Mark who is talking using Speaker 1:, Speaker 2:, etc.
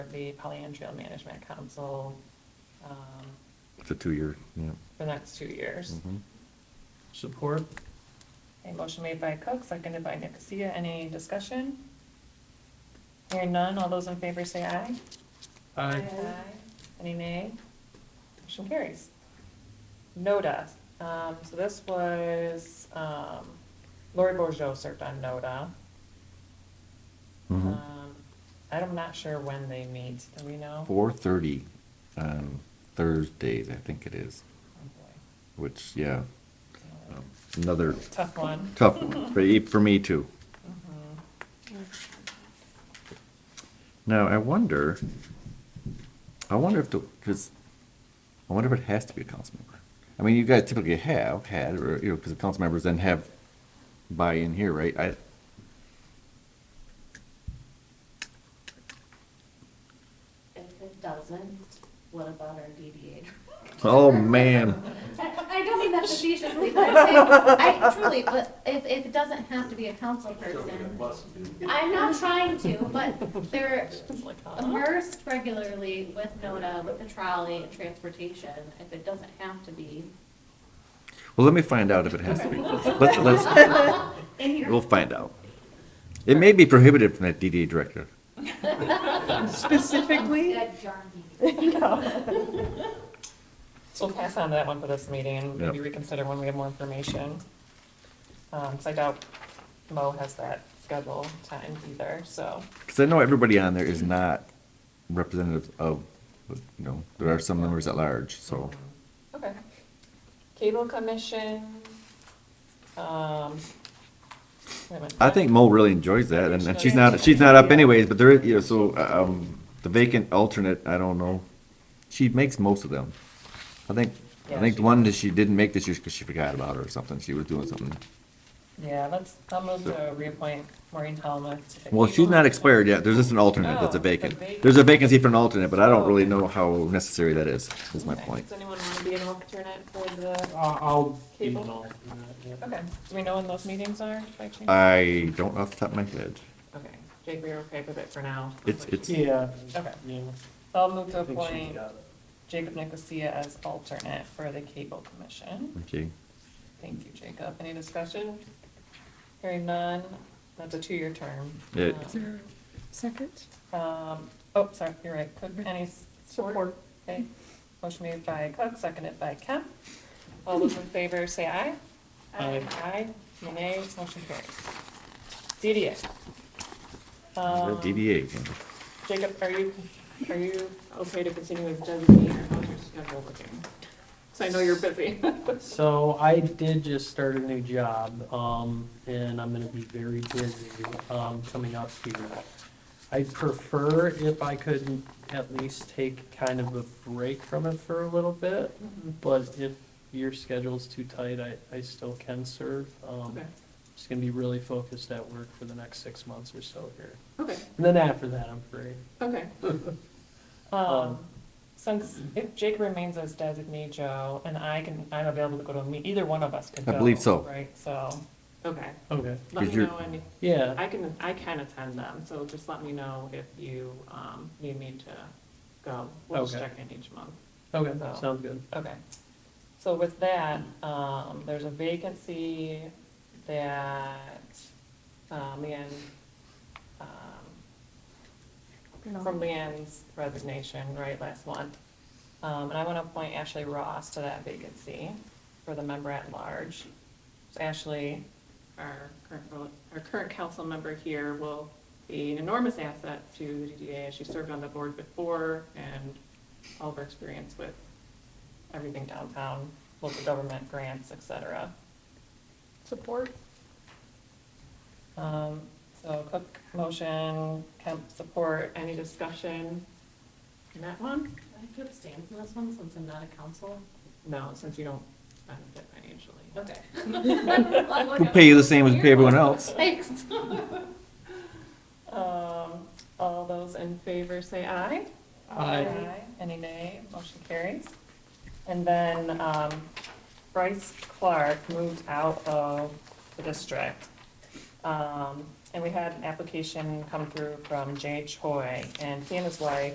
Speaker 1: the Pollyann Trail Management Council um,
Speaker 2: It's a two-year, yeah.
Speaker 1: for the next two years.
Speaker 2: Mhm.
Speaker 3: Support?
Speaker 1: A motion made by Cook, seconded by Nicosia. Any discussion? Hearing none, all those in favor say aye.
Speaker 3: Aye.
Speaker 1: Any nay? Motion carries. NODA, um, so this was, um, Lori Bourgeau served on NODA.
Speaker 2: Mhm.
Speaker 1: Um, I'm not sure when they meet, do we know? Oh,
Speaker 2: 4:30 on um, Thursdays, I think it is,
Speaker 1: Oh, boy.
Speaker 2: which, yeah, um, another
Speaker 1: Tough one.
Speaker 2: tough one for, e- for me too. Mm-hmm. Now, I wonder, I wonder if the, because, I wonder if it has to be a council member. I mean, you guys typically have had, or, you know, because the council members then have buy-in here, right? I,
Speaker 4: If it doesn't, what about our DDA?
Speaker 2: oh, man.
Speaker 4: I don't mean that facetiously, but I'm saying, I truly, but if, if it doesn't have to be a council person, I'm not trying to, but they're
Speaker 1: It's like, huh?
Speaker 4: immersed regularly with NODA, with the trolley and transportation. If it doesn't have to be
Speaker 2: Well, let me find out if it has to be. Let's, let's,
Speaker 4: in your.
Speaker 2: we'll find out. It may be prohibited from that DDA director.
Speaker 1: Specifically?
Speaker 4: Good journey.
Speaker 1: So we'll pass on that one for this meeting and maybe
Speaker 2: Yep.
Speaker 1: reconsider when we have more information. Um, 'cause I doubt Mo has that schedule time either, so.
Speaker 2: Because I know everybody on there is not representative of, you know, there are some members at large, so.
Speaker 1: Okay. Cable commission, um. wait a minute.
Speaker 2: I think Mo really enjoys that, and and she's not, she's not up anyways, but there, is- you know, so, um, the vacant alternate, I don't know. She makes most of them. I think, I think the one that she didn't make this year because she forgot about her or something, she was doing something.
Speaker 1: Yeah, let's, I'll move to reappoint Maureen Helmuth. to the
Speaker 2: Well, she's
Speaker 1: cable.
Speaker 2: not expired yet, there's just an alternate that's a
Speaker 1: Oh, the
Speaker 2: vacant.
Speaker 1: vacant.
Speaker 2: There's a vacancy for an alternate, but I don't
Speaker 1: Oh,
Speaker 2: really
Speaker 1: okay.
Speaker 2: know how necessary that is, is my
Speaker 1: Okay.
Speaker 2: point.
Speaker 1: Does anyone want to be an alternate for the,
Speaker 3: Uh, I'll be an
Speaker 1: Cable?
Speaker 3: alternate, yeah.
Speaker 1: okay, do we know when those meetings are by chance?
Speaker 2: I don't off the top of my head.
Speaker 1: Okay, Jake, we're okay with it for now.
Speaker 2: It's, it's,
Speaker 3: Yeah.
Speaker 1: Okay.
Speaker 3: Yeah.
Speaker 1: So I'll move to
Speaker 3: I think she's
Speaker 1: appoint
Speaker 3: got it.
Speaker 1: Jacob Nicosia as alternate for the cable commission.
Speaker 2: okay.
Speaker 1: Thank you, Jacob. Any discussion? Hearing none, that's a two-year term.
Speaker 2: Yeah.
Speaker 1: Um,
Speaker 2: Is
Speaker 5: Second?
Speaker 1: Um, oh, sorry, you're right, Cook, any support? Okay, motion made by Cook, seconded by Kemp. All those in favor, say aye.
Speaker 3: Aye.
Speaker 1: Aye, Any nays, motion carries. DDA. Um,
Speaker 2: DDA.
Speaker 1: Jacob, are you, are you okay to continue with designee or how's your schedule looking? So I know you're busy.
Speaker 3: So I did just start a new job, um, and I'm gonna be very busy, um, coming up here. I prefer if I could at least take kind of a break from it for a little bit,
Speaker 2: Um.
Speaker 3: but if your schedule's too tight, I, I still can serve. Um,
Speaker 1: Okay.
Speaker 3: just gonna be really focused at work for the next six months or so here.
Speaker 1: Okay,
Speaker 3: And then after that, I'm free.
Speaker 1: okay. Um, since, if Jake remains as designee Joe, and I can, I'm available to go to a meet, either one of us could go.
Speaker 2: I believe so.
Speaker 1: Right, so, okay.
Speaker 3: Okay,
Speaker 1: Let me
Speaker 2: Because you're-
Speaker 1: know, and
Speaker 3: yeah,
Speaker 1: I can, I can attend them, so just let me know if you, um, need me to go. We'll just
Speaker 3: Okay.
Speaker 1: check in each month.
Speaker 3: okay,
Speaker 1: So-
Speaker 3: sounds good.
Speaker 1: Okay. So with that, um, there's a vacancy that, um, Leanne, um, from Leanne's resignation, right, last month. Um, and I want to appoint Ashley Ross to that vacancy for the member at large. So Ashley, our current, vo- our current council member here will be an enormous asset to the DDA. She served on the board before and all of her experience with everything downtown, local government grants, et cetera.
Speaker 5: Support?
Speaker 1: Um, so Cook motion, Kemp support, any discussion in that one?
Speaker 4: I have to abstain from this one since I'm not a council.
Speaker 1: No, since you don't benefit financially.
Speaker 4: Okay.
Speaker 2: We'll pay you the same as we pay everyone else.
Speaker 4: Thanks.
Speaker 1: Um, all those in favor say aye.
Speaker 3: Aye.
Speaker 1: Any nay? Motion carries. And then, um, Bryce Clark moved out of the district. Um, and we had an application come through from Jay Choi, and he and his wife